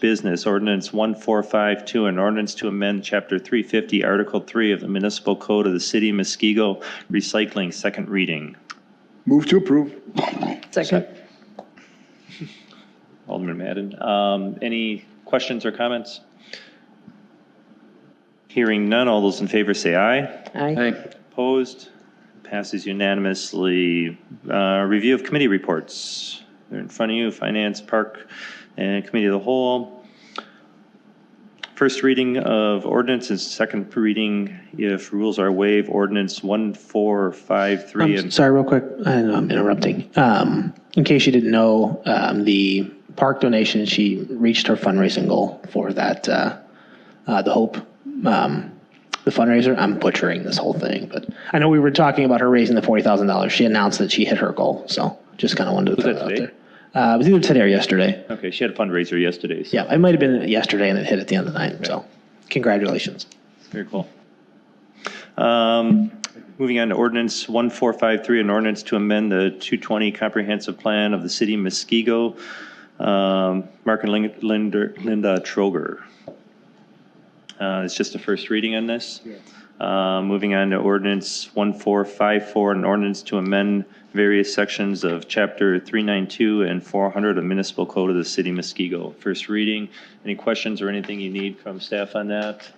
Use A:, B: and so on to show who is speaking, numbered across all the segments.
A: Business, ordinance 1452, an ordinance to amend Chapter 350, Article 3 of the Municipal Code of the City of Muskego, recycling, second reading.
B: Move to approve.
C: Second.
A: Alderman Madden, um, any questions or comments? Hearing none, all those in favor say aye.
C: Aye.
A: Opposed? Passes unanimously. Uh, Review of committee reports. They're in front of you, Finance, Park, and Committee of the Whole. First reading of ordinance and second reading, if rules are waived, ordinance 1453.
D: Um,
A: and-
D: Sorry, real quick, I know I'm interrupting. Um, In case you didn't know, um, the park donation, she reached her fundraising goal for that, uh, uh, the Hope, um, the fundraiser. I'm butchering this whole thing, but I know we were talking about her raising the $40,000. She announced that she hit her goal, so just kind of wanted to throw
A: that
D: that out
A: today?
D: there. Uh, It was either today or yesterday.
A: Okay, she had a fundraiser yesterday, so
D: Yeah, it might have been yesterday and it hit at the end of the night, so congratulations.
A: Very cool. Um, Moving on to ordinance 1453, an ordinance to amend the 220 comprehensive plan of the city of Muskego. Um, Mark and Lin- Linda Linda Troger. Uh, It's just a first reading on this. Uh, Moving on to ordinance 1454, an ordinance to amend various sections of chapter 392 and 400 of municipal code of the city of Muskego. First reading. Any questions or anything you need from staff on that?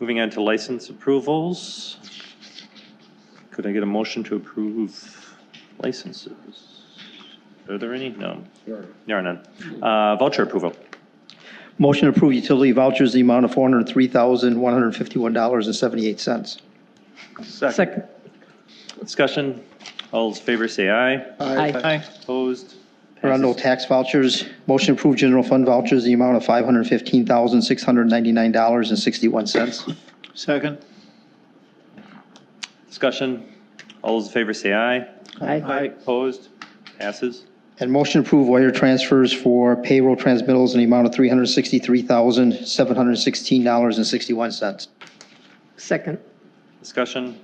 A: Moving on to license approvals. Could I get a motion to approve licenses? Are there any? No. There are none. Uh, Voucher approval.
E: Motion to approve utility vouchers, the amount of $403,151.78.
C: Second.
A: Discussion. All those in favor say aye.
C: Aye.
A: Opposed?
E: Arundel tax vouchers, motion to approve general fund vouchers, the amount of $515,699.61.
B: Second.
A: Discussion. All those in favor say aye.
C: Aye.
A: Opposed? Passes.
E: And motion to approve wire transfers for payroll transmittals in the amount of $363,716.61.
C: Second.
A: Discussion.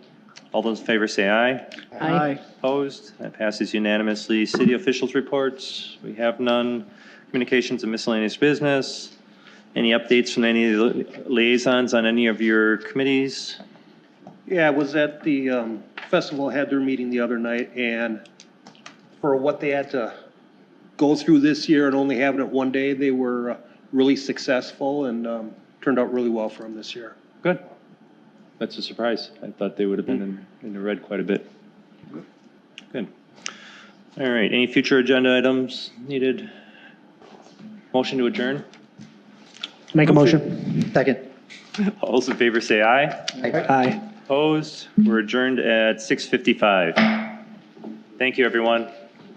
A: All those in favor say aye.
C: Aye.
A: Opposed? That passes unanimously. City officials' reports, we have none. Communications and miscellaneous business. Any updates from any of the liaisons on any of your committees?
F: Yeah, I was at the um, festival, had their meeting the other night, and for what they had to go through this year and only having it one day, they were uh, really successful and um, turned out really well for them this year.
A: Good. That's a surprise. I thought they would have been in, in the red quite a bit. Good. All right, any future agenda items needed? Motion to adjourn?
D: Make a motion.
E: Second.
A: All those in favor say aye.
D: Aye.
A: Opposed? We're adjourned at 6:55. Thank you, everyone.